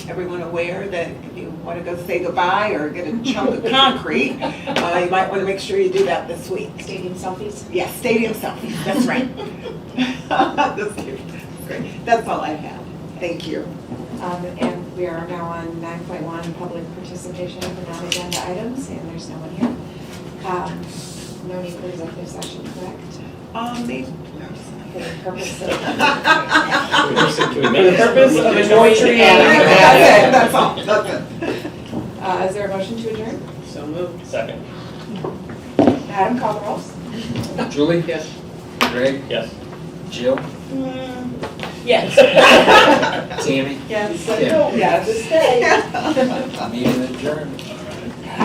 everyone aware that if you want to go say goodbye or get a chunk of concrete, uh, you might want to make sure you do that this week. Stadium selfies? Yes, stadium selfie, that's right. That's cute. Great. That's all I have. Thank you. Um, And we are now on 9.1, public participation for non-agenda items, and there's no one here. Um, No need for executive session, correct? Um, may- For the purpose of, For the purpose of anointing That's it, that's all, that's it. Uh, is there a motion to adjourn? So moved. Second. Adam, call the rolls. Julie? Yes. Greg? Yes. Jill? Yes. Tammy? Yes. Yes. Yes. Meeting adjourned.